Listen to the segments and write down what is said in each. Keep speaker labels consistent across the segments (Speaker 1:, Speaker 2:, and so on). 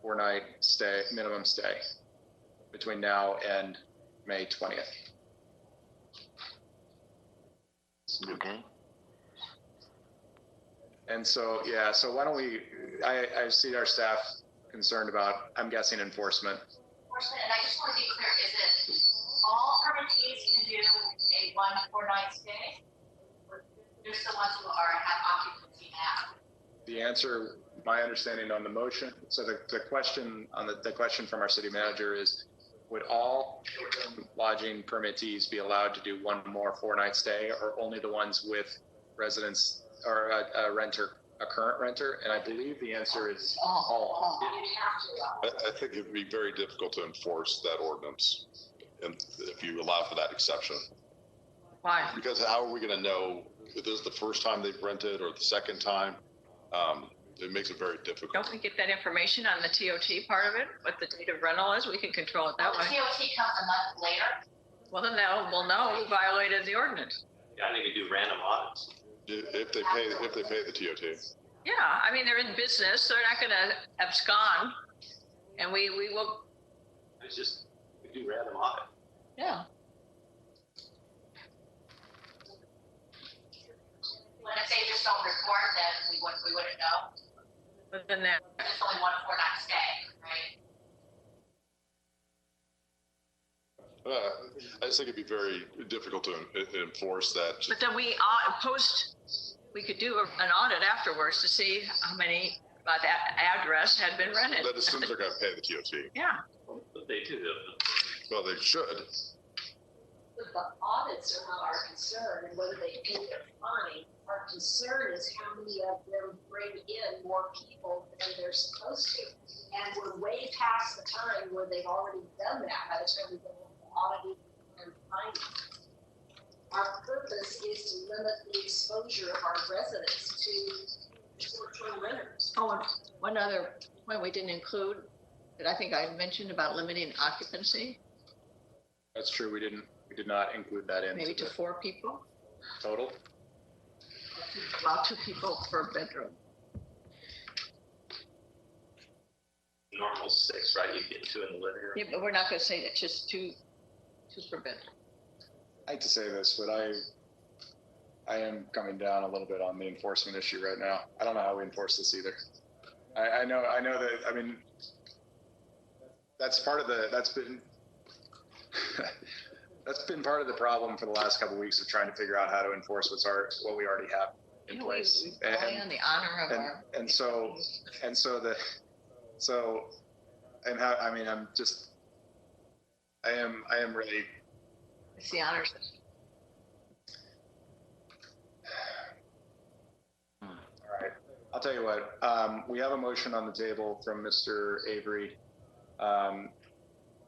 Speaker 1: four night stay, minimum stay between now and May twentieth.
Speaker 2: Okay.
Speaker 1: And so, yeah, so why don't we, I, I see our staff concerned about, I'm guessing enforcement.
Speaker 3: enforcement, and I just want to be clear, is it all permittees can do a one four night stay? Or Just the ones who are, have occupancy now?
Speaker 1: The answer, my understanding on the motion, so the, the question on the, the question from our city manager is, would all short-term lodging permittees be allowed to do one more four-night stay or only the ones with residents or a, a renter, a current renter? And I believe the answer is all.
Speaker 3: uh,
Speaker 4: I, I think it'd be very difficult to enforce that ordinance and if you allow for that exception.
Speaker 5: Why?
Speaker 4: Because how are we going to know if this is the first time they've rented or the second time? Um, it makes it very difficult.
Speaker 5: Don't we get that information on the TOT part of it, what the date of rental is? We can control it that
Speaker 3: Well, the
Speaker 5: way.
Speaker 3: COT comes a month later,
Speaker 5: Well, then that, we'll know who violated the ordinance.
Speaker 6: Yeah, I think we do random audits.
Speaker 4: If if they pay, if they pay the TOT.
Speaker 5: Yeah, I mean, they're in business, they're not gonna abscond. And we, we will,
Speaker 6: It's just, we do random audit.
Speaker 5: yeah.
Speaker 3: when if they just don't report, then we wouldn't, we wouldn't know,
Speaker 5: But then that,
Speaker 3: there's only one four night stay, right?
Speaker 4: Uh, I just think it'd be very difficult to en- enforce that.
Speaker 5: but then we, au- post, we could do an audit afterwards to see how many, by that address had been rented.
Speaker 4: That assumes they're going to pay the TOT.
Speaker 5: Yeah,
Speaker 6: But they do, the-
Speaker 4: Well, they should.
Speaker 7: But the audits are not our concern, and whether they pay their fine. Our concern is how many of them bring in more people than they're supposed to. And we're way past the time where they've already done that by the time we go into auditing and finding. Our purpose is to limit the exposure of our residents to short-term renters.
Speaker 5: Oh, and one other point we didn't include that I think I mentioned about limiting occupancy,
Speaker 1: That's true. We didn't, we did not include that
Speaker 5: maybe
Speaker 1: into
Speaker 5: to
Speaker 1: the
Speaker 5: four people,
Speaker 1: total.
Speaker 5: about two people per bedroom.
Speaker 6: the normal six, right? You get two in the living room.
Speaker 5: Yeah, but we're not gonna say that, just two, two per bedroom.
Speaker 1: I hate to say this, but I, I am coming down a little bit on the enforcement issue right now. I don't know how we enforce this either. I, I know, I know that, I mean, that's part of the, that's been, that's been part of the problem for the last couple of weeks of trying to figure out how to enforce what's our, what we already have in
Speaker 5: You know, we-
Speaker 1: place.
Speaker 5: we rely
Speaker 1: And-
Speaker 5: on the honor of
Speaker 1: and-
Speaker 5: our.
Speaker 1: and so- and so the so and how i mean i'm just i am i am really
Speaker 5: It's the honor system.
Speaker 1: all right i'll tell you what um, we have a motion on the table from mr avery um,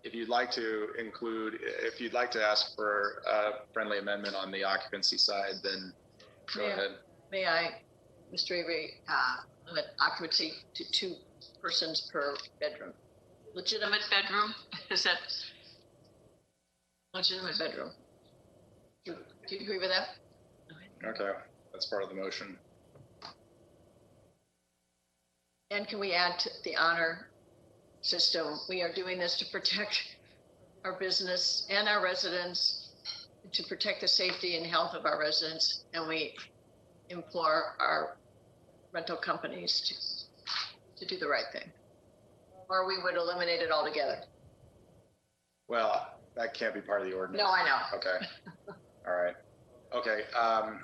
Speaker 1: if you'd like to include if you'd like to ask for a friendly amendment on the occupancy side then go
Speaker 5: Yeah.
Speaker 1: ahead
Speaker 5: May I, Mr. Avery, uh, limit occupancy to two persons per bedroom? Legitimate bedroom, is that? Legitimate bedroom. Do do you agree with that?
Speaker 1: okay that's part of the motion
Speaker 5: And can we add to the honor system? We are doing this to protect our business and our residents, to protect the safety and health of our residents, and we implore our rental companies to, to do the right thing. Or we would eliminate it altogether.
Speaker 1: well that can't be part of the ordinance
Speaker 5: No, I know.
Speaker 1: Okay. All right. Okay. Um,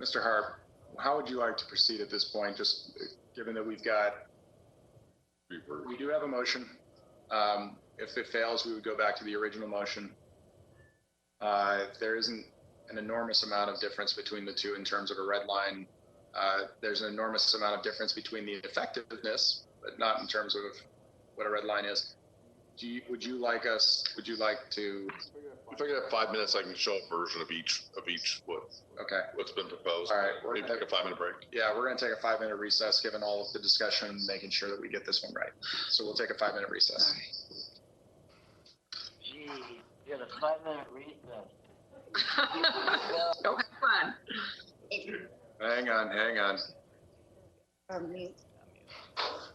Speaker 1: Mr. Harp, how would you like to proceed at this point? Just uh, given that we've got, we do have a motion. Um, if it fails, we would go back to the original motion. Uh, there isn't an enormous amount of difference between the two in terms of a red line. Uh, there's an enormous amount of difference between the effectiveness, but not in terms of what a red line is. Do you, would you like us, would you like to
Speaker 4: If I could have five minutes, I can show a version of each, of each, what,
Speaker 1: Okay,
Speaker 4: what's been proposed.
Speaker 1: all right. We're
Speaker 4: Maybe
Speaker 1: gonna,
Speaker 4: take a five-minute break.
Speaker 1: yeah, we're gonna take a five minute recess, given all of the discussion, making sure that we get this one right. So we'll take a five minute
Speaker 5: All
Speaker 1: recess.
Speaker 5: right.
Speaker 2: Gee, you had a five-minute recess.
Speaker 5: Don't have fun.
Speaker 1: Hang on, hang on.
Speaker 8: Um,